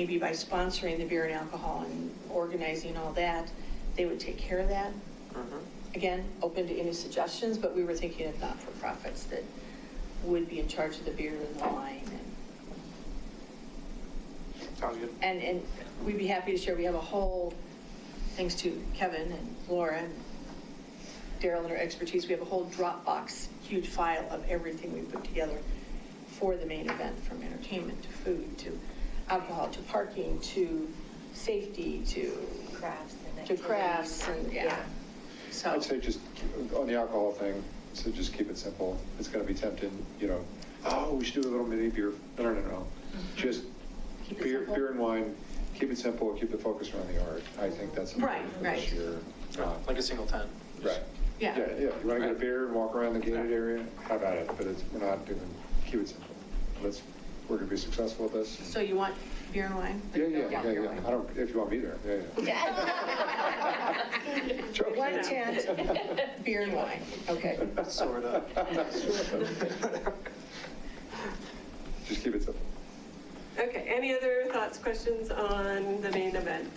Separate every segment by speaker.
Speaker 1: maybe by sponsoring the beer and alcohol and organizing all that, they would take care of that.
Speaker 2: Mm-hmm.
Speaker 1: Again, open to any suggestions, but we were thinking of not-for-profits that would be in charge of the beer and the wine. and-
Speaker 2: Sounds good.
Speaker 1: And, and we'd be happy to share, we have a whole, thanks to Kevin and Laura and Daryl and her expertise, we have a whole Dropbox, huge file of everything we put together for the main event, from entertainment to food to alcohol to parking to safety to.
Speaker 3: crafts and
Speaker 1: To crafts and,
Speaker 3: activities.
Speaker 1: yeah. So.
Speaker 4: I'd say just, on the alcohol thing, so just keep it simple. It's gonna be tempting, you know, oh, we should do a little mini beer. No, no, no, no. Just
Speaker 1: Mm-hmm. Keep it
Speaker 4: beer,
Speaker 1: simple.
Speaker 4: beer and wine, keep it simple, keep the focus around the art. I think that's
Speaker 1: Right,
Speaker 4: important for this
Speaker 1: right.
Speaker 4: year. Uh,
Speaker 2: Like a single tent.
Speaker 4: Right.
Speaker 1: Yeah.
Speaker 4: Yeah, yeah. You wanna get a
Speaker 2: Right.
Speaker 4: beer and walk around the gated
Speaker 2: Yeah.
Speaker 4: area? How about it? But it's, we're not doing, keep it simple. Let's, we're gonna be successful with this.
Speaker 1: So you want beer and wine?
Speaker 4: Yeah, yeah, yeah,
Speaker 1: beer and
Speaker 4: yeah.
Speaker 1: wine.
Speaker 4: I don't, if you want me there, yeah, yeah. Joking.
Speaker 1: One tent, beer and wine, okay.
Speaker 2: Sort of.
Speaker 4: Just keep it simple.
Speaker 5: Okay, any other thoughts, questions on the main event?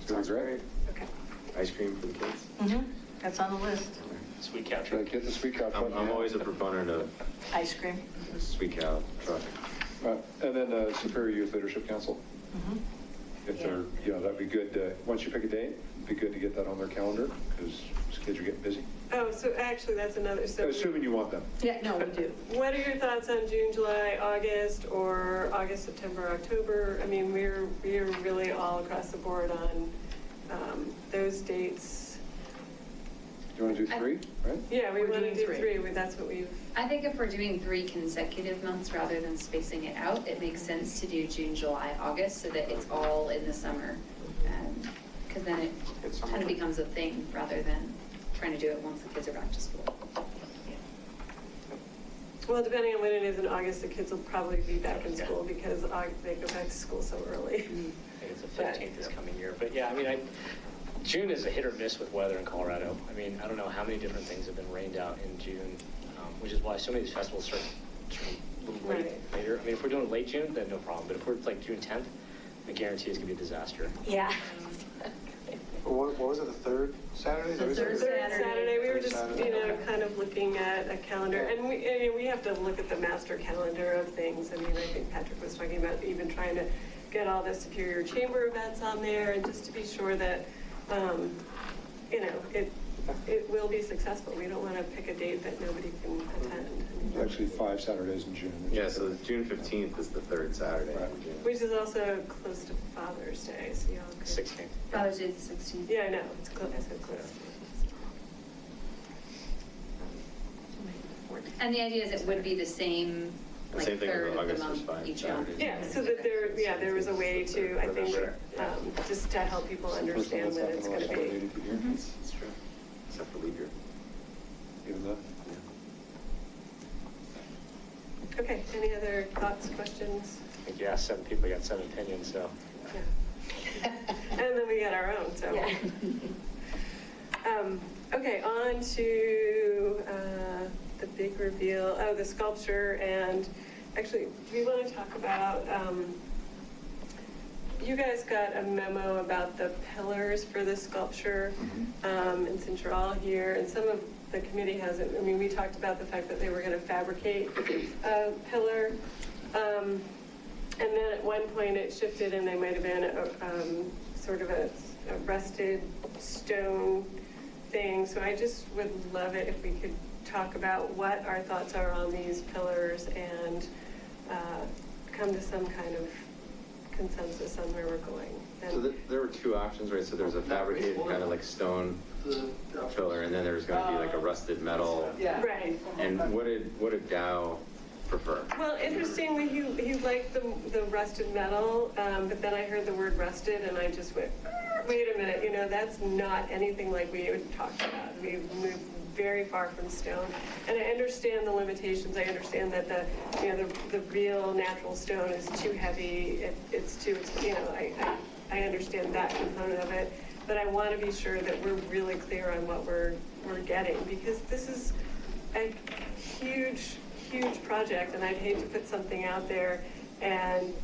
Speaker 4: It's gonna be great.
Speaker 5: Okay.
Speaker 6: Ice cream for the kids?
Speaker 1: Mhm. That's on the list.
Speaker 2: Sweet
Speaker 4: Should I
Speaker 2: capture.
Speaker 4: get the sweet cow?
Speaker 6: I'm, I'm always a proponent of
Speaker 1: Ice cream.
Speaker 6: sweet cow traffic.
Speaker 4: Uh, And then uh, Superior Youth Leadership Council,
Speaker 1: Mhm.
Speaker 4: if they're, you know, that'd be good, to- once you pick a date, it'd be good to get that on their calendar, because kids are getting busy,
Speaker 5: Oh, so actually, that's another, so
Speaker 4: assuming you want them.
Speaker 1: Yeah, no, we do.
Speaker 5: what are your thoughts on June, July, August, or August, September, October? I mean, we're, we're really all across the board on um, those dates.
Speaker 4: Do you want to do
Speaker 7: I-
Speaker 4: three, right?
Speaker 5: Yeah, we
Speaker 1: We're
Speaker 5: want
Speaker 1: doing
Speaker 5: to do
Speaker 1: three.
Speaker 5: three, but that's what we've,
Speaker 7: I think if we're doing three consecutive months rather than spacing it out, it makes sense to do June, July, August so that it's all in the summer. Because then it
Speaker 2: It's summer.
Speaker 7: kind of becomes a thing rather than trying to do it once the kids are back to school.
Speaker 5: well, depending on when it is in August, the kids will probably be back in school because Au- they go back to school so early.
Speaker 1: Mm-hmm.
Speaker 8: I think it's the 15th this coming year, but yeah, I mean, I, June is a hit or miss with weather in Colorado. I mean, I don't know how many different things have been rained out in June, um, which is why so many of these festivals start start a little late,
Speaker 5: Right.
Speaker 8: later. I mean, if we're doing late June, then no problem, but if we're like June 10th, I guarantee it's gonna be a disaster.
Speaker 3: Yeah.
Speaker 2: What, what was it, the third
Speaker 1: The
Speaker 2: Saturday? Is that what
Speaker 5: Third
Speaker 2: you said?
Speaker 1: Saturday.
Speaker 5: Saturday, we were just, you know,
Speaker 2: Saturday.
Speaker 5: kind of looking at a calendar, and we, I mean, we have to look at the master calendar of things. I mean, I think Patrick was talking about even trying to get all the Superior Chamber events on there, and just to be sure that, um, you know, it, it will be successful. We don't want to pick a date that nobody can attend.
Speaker 4: Actually, five Saturdays in June. which
Speaker 6: Yeah,
Speaker 4: is-
Speaker 6: so June 15th is the third Saturday. in
Speaker 4: Right.
Speaker 6: June.
Speaker 5: Which is also close to Father's Day, so y'all could.
Speaker 8: 16th.
Speaker 7: Father's Day is the 16th.
Speaker 5: Yeah, I know, it's close, I said close.
Speaker 7: And the idea is it would be the same,
Speaker 6: The
Speaker 7: like
Speaker 6: same thing
Speaker 7: third of
Speaker 6: with
Speaker 7: the
Speaker 6: August
Speaker 7: month
Speaker 6: is fine.
Speaker 7: each month.
Speaker 6: Saturday.
Speaker 5: Yeah, so that there, yeah, there was a way to, I think, um, just to help people
Speaker 4: It's the first time
Speaker 5: understand
Speaker 4: that's
Speaker 5: that it's
Speaker 4: happened
Speaker 5: going
Speaker 4: in
Speaker 5: to
Speaker 4: the last
Speaker 5: be.
Speaker 4: 180 years.
Speaker 7: Mhm.
Speaker 6: It's true. Except for leap year.
Speaker 5: Mm-hmm.
Speaker 4: Even though,
Speaker 5: Okay, any other thoughts, questions?
Speaker 8: I think you asked seven people, you got seven opinions, so.
Speaker 5: Yeah. And then we got our own, so.
Speaker 3: Yeah.
Speaker 5: Um, Okay, on to uh, the big reveal, oh, the sculpture, and actually, we want to talk about, um, you guys got a memo about the pillars for the sculpture, um, and since you're all here, and some of the committee hasn't, I mean, we talked about the fact that they were going to fabricate a pillar. Um, and then at one point it shifted and they might have been a, um, sort of a, a rusted stone thing. So I just would love it if we could talk about what our thoughts are on these pillars and uh, come to some kind of consensus on where we're going.
Speaker 6: So th- there were two options, right? So there was a fabricated kind of like stone filler, and then there was gonna be like a rusted metal.
Speaker 5: Right.
Speaker 6: And what did, what did Dow prefer?
Speaker 5: Well, interestingly, he, he liked the, the rusted metal, um, but then I heard the word rusted and I just went, "Ah, wait a minute, you know, that's not anything like we had talked about. We've moved very far from stone. And I understand the limitations. I understand that the, you know, the, the real natural stone is too heavy. It, it's too, you know, I, I, I understand that component of it. But I want to be sure that we're really clear on what we're, we're getting because this is, a huge, huge project, and I'd hate to put something out there And